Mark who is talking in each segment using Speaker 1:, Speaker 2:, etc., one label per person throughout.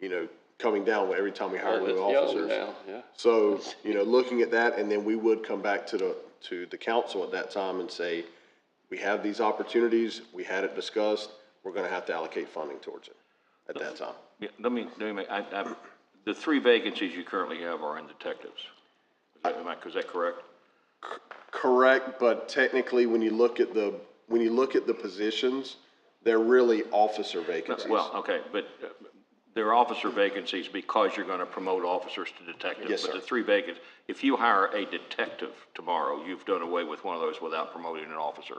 Speaker 1: you know, coming down every time we hire
Speaker 2: Well,
Speaker 1: new
Speaker 2: it's young
Speaker 1: officers.
Speaker 2: now, yeah.
Speaker 1: So, you know, looking at that, and then we would come back to the, to the council at that time and say, we have these opportunities, we had it discussed, we're gonna have to allocate funding towards it at that time.
Speaker 3: Yeah, let me, let me, make- I, I, the three vacancies you currently have are in detectives. Is that, am I, is that correct?
Speaker 1: Correct, but technically, when you look at the, when you look at the positions, they're really officer vacancies.
Speaker 3: Well, okay, but uh, there are officer vacancies because you're gonna promote officers to detectives.
Speaker 1: Yes, sir.
Speaker 3: But the three vacancies, if you hire a detective tomorrow, you've done away with one of those without promoting an officer.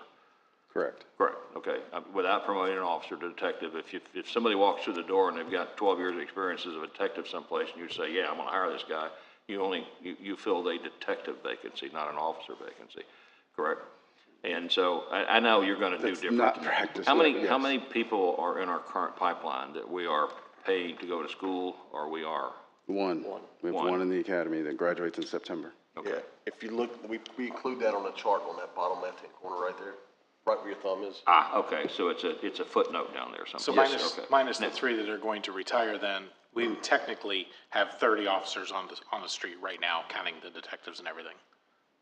Speaker 1: Correct.
Speaker 3: Correct, okay. Uh, Without promoting an officer to detective, if, you- if somebody walks through the door and they've got twelve years' of experience as a detective someplace, and you say, yeah, I'm gonna hire this guy, you only, you, you filled a detective vacancy, not an officer vacancy, correct? And so, I, I know you're gonna do different.
Speaker 4: not practice
Speaker 3: How many,
Speaker 4: that,
Speaker 3: how
Speaker 4: yes.
Speaker 3: many people are in our current pipeline that we are paying to go to school, or we are?
Speaker 4: One. We have
Speaker 3: One.
Speaker 4: one in the academy that graduates in September.
Speaker 1: Yeah, if you look, we, we include that on the chart on that bottom left-hand corner right there, right where your thumb is.
Speaker 3: Ah, okay, so it's a, it's a footnote down there
Speaker 5: So
Speaker 3: somewhere.
Speaker 5: minus, minus the three that are going to retire then, we technically have thirty officers on the, on the street right now, counting the detectives and everything,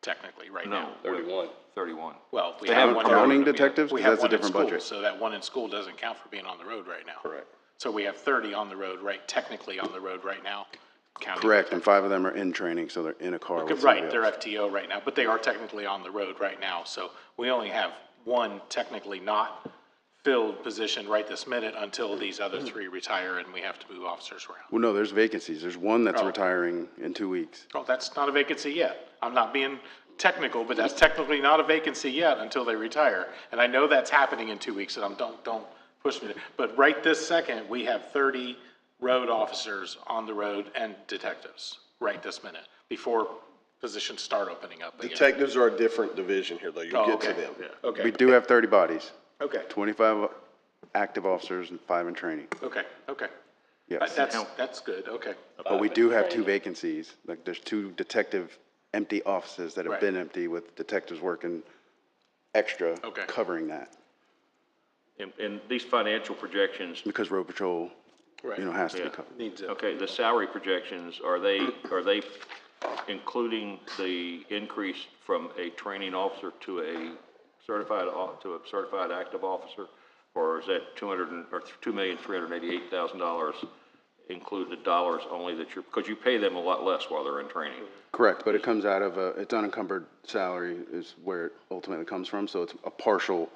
Speaker 5: technically, right
Speaker 3: No.
Speaker 5: now.
Speaker 3: Thirty-one. Thirty-one.
Speaker 5: Well, we have one.
Speaker 4: Counting detectives,
Speaker 5: We
Speaker 4: 'Cause
Speaker 5: have
Speaker 4: that's a
Speaker 5: one in
Speaker 4: different
Speaker 5: school,
Speaker 4: budget.
Speaker 5: so that one in school doesn't count for being on the road right now. Correct. So we have thirty on the road, right, technically on the road right now, counting.
Speaker 4: Correct, and five of them are in training, so they're in a car with somebody
Speaker 5: Right, they're
Speaker 4: else.
Speaker 5: FTO right now, but they are technically on the road right now, so we only have one technically not filled position right this minute until these other
Speaker 4: Hmm.
Speaker 5: three retire and we have to move officers around.
Speaker 4: Well, no, there's vacancies. There's one that's
Speaker 5: Oh.
Speaker 4: retiring in two weeks.
Speaker 5: Oh, that's not a vacancy yet. I'm not being technical, but that's technically not a vacancy yet until they retire. And I know that's happening in two weeks, and I'm, don't, don't push me. to- But right this second, we have thirty road officers on the road and detectives, right this minute, before positions start opening up again.
Speaker 1: Detectives are a different division here, though, you'll
Speaker 5: Oh,
Speaker 1: get to
Speaker 5: okay.
Speaker 1: them.
Speaker 4: We
Speaker 5: Okay,
Speaker 4: do have thirty bodies,
Speaker 5: okay,
Speaker 4: twenty-five active officers and five in training.
Speaker 5: okay, okay.
Speaker 4: Yes.
Speaker 5: That- That's, that's good, okay.
Speaker 4: But we do have two vacancies, like there's two detective empty offices that have
Speaker 5: Right.
Speaker 4: been empty with detectives working extra,
Speaker 5: Okay.
Speaker 4: covering that.
Speaker 3: And, and these financial projections
Speaker 4: Because road patrol,
Speaker 5: Right.
Speaker 4: you know, has to be
Speaker 3: Yeah.
Speaker 4: covered.
Speaker 5: Needs it.
Speaker 3: Okay, the salary projections, are they, are they including the increase from a training officer to a certified, au- to a certified active officer? Or is that two hundred and, or two million, three hundred and eighty-eight thousand dollars include the dollars only that you're, because you pay them a lot less while they're in training?
Speaker 4: Correct, but it comes out of a, it's unencumbered salary is where it ultimately comes from, so it's a partial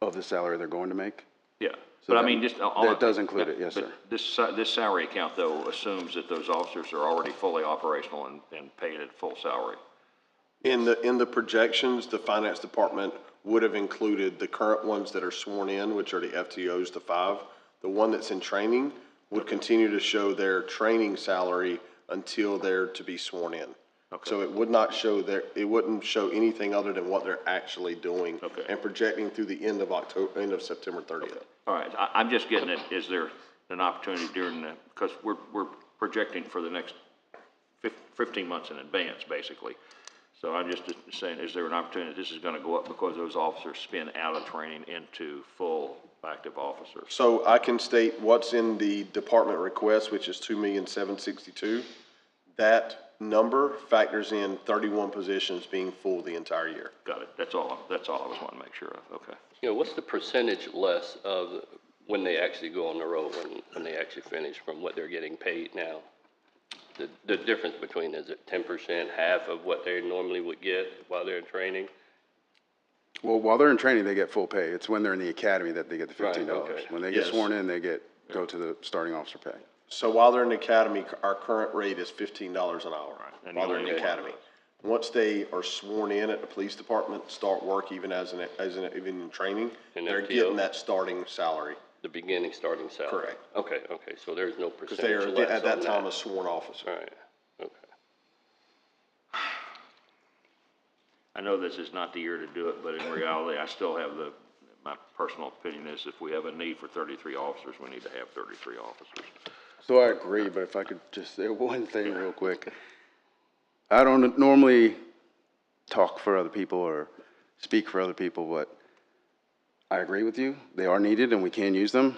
Speaker 4: of the salary they're going to make.
Speaker 3: Yeah, but I
Speaker 4: that-
Speaker 3: mean, just. all-
Speaker 4: that does include it, yes,
Speaker 3: but
Speaker 4: sir.
Speaker 3: This, sa- this salary account though assumes that those officers are already fully operational and, and paid at full salary.
Speaker 1: In the, in the projections, the finance department would have included the current ones that are sworn in, which are the FTOs, the five. The one that's in training would continue to show their training salary until they're to be sworn in. So it would not show their, it wouldn't show anything other than what they're actually doing
Speaker 3: Okay.
Speaker 1: and projecting through the end of October, end of September thirtieth.
Speaker 3: All right, I, I'm just getting it, is there an opportunity during the, because we're, we're projecting for the next fif- fifteen months in advance, basically. So I'm just saying, is there an opportunity, this is gonna go up because those officers spin out of training into full active officers?
Speaker 1: So I can state what's in the department request, which is two million seven sixty-two. That number factors in thirty-one positions being full the entire year.
Speaker 3: Got it, that's all, that's all I was wanting to make sure of, okay.
Speaker 6: You know, what's the percentage less of when they actually go on the road, when, when they actually finish from what they're getting paid now? The, the difference between, is it ten percent, half of what they normally would get while they're in training?
Speaker 4: Well, while they're in training, they get full pay. It's when they're in the academy that they get the
Speaker 6: Right,
Speaker 4: fifteen dollars.
Speaker 6: okay.
Speaker 4: When they get
Speaker 1: Yes.
Speaker 4: sworn in, they get, go to the starting officer pay.
Speaker 1: So while they're in the academy, our current rate is fifteen dollars an hour
Speaker 3: and
Speaker 1: while they're in
Speaker 3: only
Speaker 1: the
Speaker 3: one of
Speaker 1: academy. Once they are sworn in at the police department, start work even as an, as an, even in training,
Speaker 6: An
Speaker 1: they're
Speaker 6: FTO?
Speaker 1: getting that starting salary.
Speaker 6: The beginning, starting salary?
Speaker 1: Correct.
Speaker 6: Okay, okay, so there's no
Speaker 1: Cause they
Speaker 6: percentage
Speaker 1: are,
Speaker 6: less
Speaker 1: at
Speaker 6: on
Speaker 1: that
Speaker 6: that?
Speaker 1: time, a sworn officer.
Speaker 6: All right, okay.
Speaker 3: I know this is not the year to do it, but in reality, I still have the, my personal opinion is if we have a need for thirty-three officers, we need to have thirty-three officers.
Speaker 4: So I agree, but if I could just say one thing real quick. I don't normally talk for other people or speak for other people, but I agree with you. They are needed and we can use them.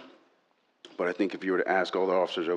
Speaker 4: But I think if you were to ask all the officers over